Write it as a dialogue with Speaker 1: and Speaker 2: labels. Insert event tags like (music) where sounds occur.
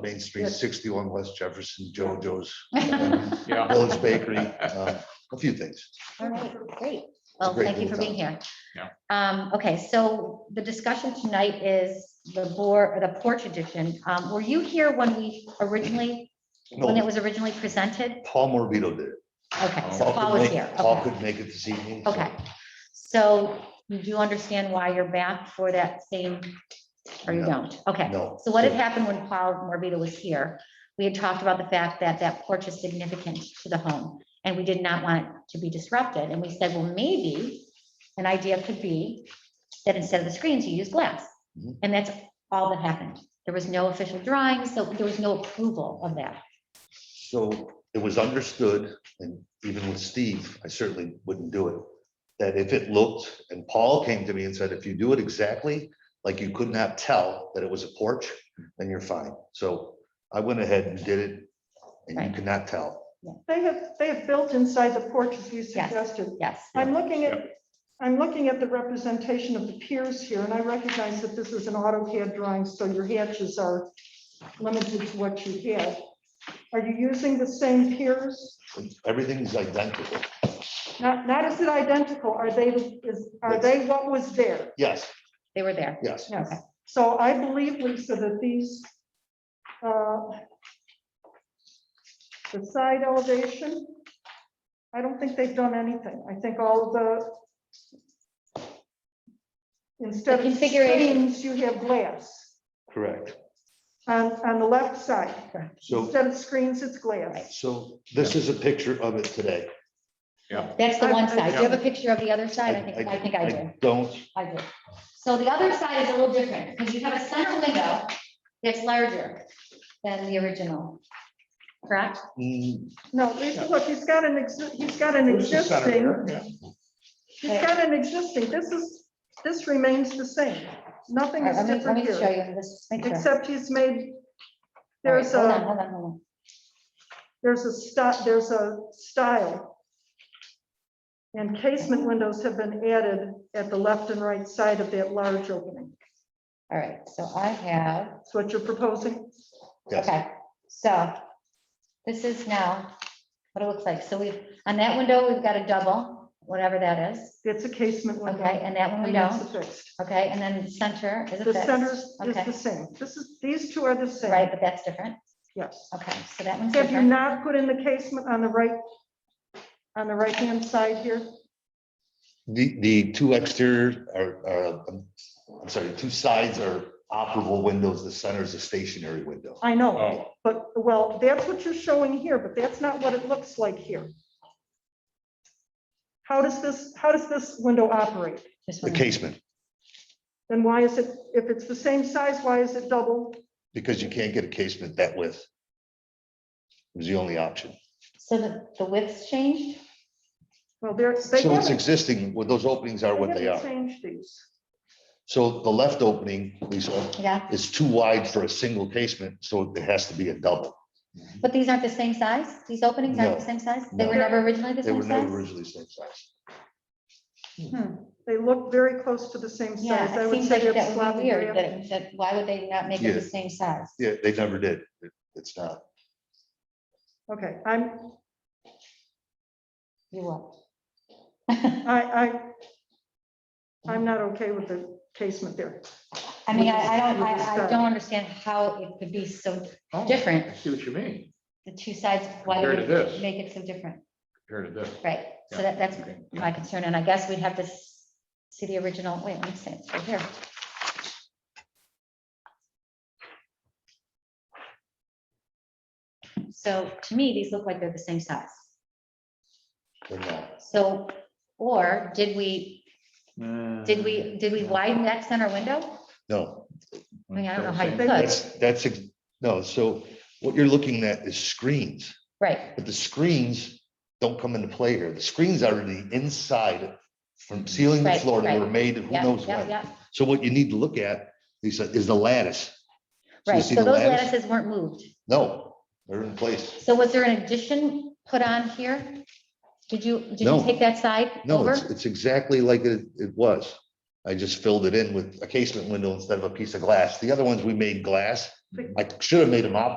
Speaker 1: Main Street,
Speaker 2: Good.
Speaker 1: sixty-one West Jefferson,
Speaker 2: (laughs)
Speaker 1: JoJo's, uh,
Speaker 3: Yeah.
Speaker 1: Village Bakery, uh, a few things.
Speaker 2: All right, great. Well,
Speaker 1: great
Speaker 2: thank you
Speaker 1: little
Speaker 2: for being here.
Speaker 3: Yeah.
Speaker 2: Um, okay, so the discussion tonight is the board, the porch edition. Um, were you here when we originally, when it
Speaker 1: No,
Speaker 2: was originally presented?
Speaker 1: Paul Morbido did it.
Speaker 2: Okay, so
Speaker 3: Paul
Speaker 2: Paul
Speaker 1: could
Speaker 2: was
Speaker 1: make-
Speaker 2: here.
Speaker 1: Paul
Speaker 2: Okay.
Speaker 1: could make it this evening. so-
Speaker 2: Okay, so you do understand why you're back for that same, or you
Speaker 1: No.
Speaker 2: don't? Okay.
Speaker 1: No.
Speaker 2: So what had happened when Paul Morbido was here, we had talked about the fact that that porch is significant to the home, and we did not want it to be disrupted, and we said, well, maybe an idea could be that instead of the screens, you use glass,
Speaker 1: Mhm.
Speaker 2: and that's all that happened. There was no official drawing, so there was no approval of that.
Speaker 1: So it was understood, and even with Steve, I certainly wouldn't do it, that if it looked, and Paul came to me and said, if you do it exactly, like you could not tell that it was a porch, then you're fine. So I went ahead and did it, and you
Speaker 2: Right.
Speaker 1: could not tell.
Speaker 4: They have, they have built inside the porch as you
Speaker 2: Yes.
Speaker 4: suggested.
Speaker 2: Yes,
Speaker 4: I'm looking at, I'm looking at the representation of the piers here, and I recognize that this is an AutoCAD drawing, so your hatches are limited to what you have. Are you using the same piers?
Speaker 1: Everything's identical.
Speaker 4: Not, not is it identical, are they, is, are they what was there?
Speaker 1: Yes,
Speaker 2: they were there.
Speaker 1: yes.
Speaker 4: Yes,
Speaker 2: Okay.
Speaker 4: so I believe, Lisa, that these, uh, the side elevation, I don't think they've done anything. I think all the, instead
Speaker 2: The
Speaker 4: of
Speaker 2: configuration.
Speaker 4: screens, you have glass
Speaker 1: Correct.
Speaker 4: on, on the left side.
Speaker 1: So,
Speaker 4: Instead of screens, it's glass.
Speaker 1: so this is a picture of it today.
Speaker 2: That's the one
Speaker 4: I- I-
Speaker 2: side. Do you have a picture of the other side? I think,
Speaker 1: I-
Speaker 2: I think I do.
Speaker 1: Don't,
Speaker 2: I do. So the other side is a little different, because you have a center window that's larger than the original, correct?
Speaker 1: mm,
Speaker 4: No, Lisa, look, he's got an, exi- he's got an existing, he's got an existing, this is, this remains the same.
Speaker 2: All
Speaker 4: Nothing
Speaker 2: right,
Speaker 4: is
Speaker 2: Let me, let
Speaker 4: different
Speaker 2: me
Speaker 4: here.
Speaker 2: show you this picture. All right,
Speaker 4: Except he's made, there's
Speaker 2: hold on,
Speaker 4: a,
Speaker 2: Hold on, hold on.
Speaker 4: there's a style, there's a style. And casement windows have been added at the left and right side of that large opening.
Speaker 2: All right, so I have,
Speaker 4: That's what you're proposing.
Speaker 1: yes.
Speaker 2: okay, so this is now what it looks like. So we've, on that window, we've got a double, whatever that is,
Speaker 4: It's a casement window.
Speaker 2: okay, and that one we
Speaker 4: and that's
Speaker 2: don't,
Speaker 4: affixed.
Speaker 2: okay, and then the center is a
Speaker 4: The center
Speaker 2: fixed.
Speaker 4: is
Speaker 2: Okay.
Speaker 4: the same. This is, these two are the
Speaker 2: Right,
Speaker 4: same,
Speaker 2: but that's different,
Speaker 4: yes.
Speaker 2: okay, so that one's
Speaker 4: Have you
Speaker 2: different.
Speaker 4: not put in the casement on the right, on the right-hand side here?
Speaker 1: The, the two exterior are, are, um, I'm sorry, two sides are operable windows. The center is a stationary window.
Speaker 4: I know,
Speaker 3: Oh,
Speaker 4: but, well, that's what you're showing here, but that's not what it looks like here. How does this, how does this window operate?
Speaker 2: This
Speaker 1: The
Speaker 2: one.
Speaker 1: casement,
Speaker 4: Then why is it, if it's the same size, why is it double?
Speaker 1: because you can't get a casement that width. Was the only option.
Speaker 2: So the, the width's changed?
Speaker 4: Well, they're, they
Speaker 1: So it's
Speaker 4: haven't,
Speaker 1: existing, well, those openings are
Speaker 4: they
Speaker 1: what they
Speaker 4: haven't
Speaker 1: are.
Speaker 4: changed these.
Speaker 1: So the left opening, Lisa,
Speaker 2: Yeah,
Speaker 1: is too wide for a single casement, so it has to be a double.
Speaker 2: but these aren't the same size? These openings aren't
Speaker 1: No,
Speaker 2: the same size? They
Speaker 1: no.
Speaker 2: were never originally the
Speaker 1: They
Speaker 2: same
Speaker 1: were never
Speaker 2: size?
Speaker 1: originally same size.
Speaker 2: Hmm,
Speaker 4: They look very close to the same size.
Speaker 2: Yeah,
Speaker 4: I
Speaker 2: it
Speaker 4: would
Speaker 2: seems
Speaker 4: say
Speaker 2: like
Speaker 4: that's
Speaker 2: that would be
Speaker 4: sloppy
Speaker 2: weird, that,
Speaker 4: drafting.
Speaker 2: it- that, why would they not make it the
Speaker 1: Yeah.
Speaker 2: same size?
Speaker 1: Yeah, they never did. It- It's not.
Speaker 4: Okay, I'm,
Speaker 2: You will.
Speaker 4: I, I, I'm not okay with the casement there.
Speaker 2: I mean, I, I don't,
Speaker 4: We'll just
Speaker 2: I, I
Speaker 4: start.
Speaker 2: don't understand how it could be so
Speaker 3: oh, I
Speaker 2: different,
Speaker 3: see what you mean,
Speaker 2: the two sides, why would
Speaker 3: Compared to
Speaker 2: it
Speaker 3: this.
Speaker 2: make it so different?
Speaker 3: compared to this.
Speaker 2: Right, so
Speaker 3: Yeah,
Speaker 2: that, that's
Speaker 3: okay, yeah.
Speaker 2: my concern, and I guess we'd have to s- see the original, wait, let me see, it's right here. So to me, these look like they're the same size.
Speaker 1: They're not.
Speaker 2: So, or did we, did we,
Speaker 1: Mm,
Speaker 2: did we widen that center window?
Speaker 1: No,
Speaker 2: I mean, I don't know how you
Speaker 3: Same.
Speaker 2: could.
Speaker 1: that's, that's, ex- no, so what you're looking at is screens,
Speaker 2: Right,
Speaker 1: but the screens don't come into play here. The screens are the inside from ceiling to
Speaker 2: Right,
Speaker 1: floor that were
Speaker 2: right.
Speaker 1: made, who
Speaker 2: yeah,
Speaker 1: knows
Speaker 2: yeah,
Speaker 1: when.
Speaker 2: yeah,
Speaker 1: So what you need to look at, Lisa, is the lattice. you
Speaker 2: right,
Speaker 1: see
Speaker 2: so
Speaker 1: the
Speaker 2: those
Speaker 1: lattice?
Speaker 2: lattices weren't moved.
Speaker 1: No, they're in place.
Speaker 2: So was there an addition put on here? Did you, did you
Speaker 1: No.
Speaker 2: take that side
Speaker 1: No,
Speaker 2: over?
Speaker 1: it's, it's exactly like it, it was. I just filled it in with a casement window instead of a piece of glass. The other ones, we made glass I should have made him operate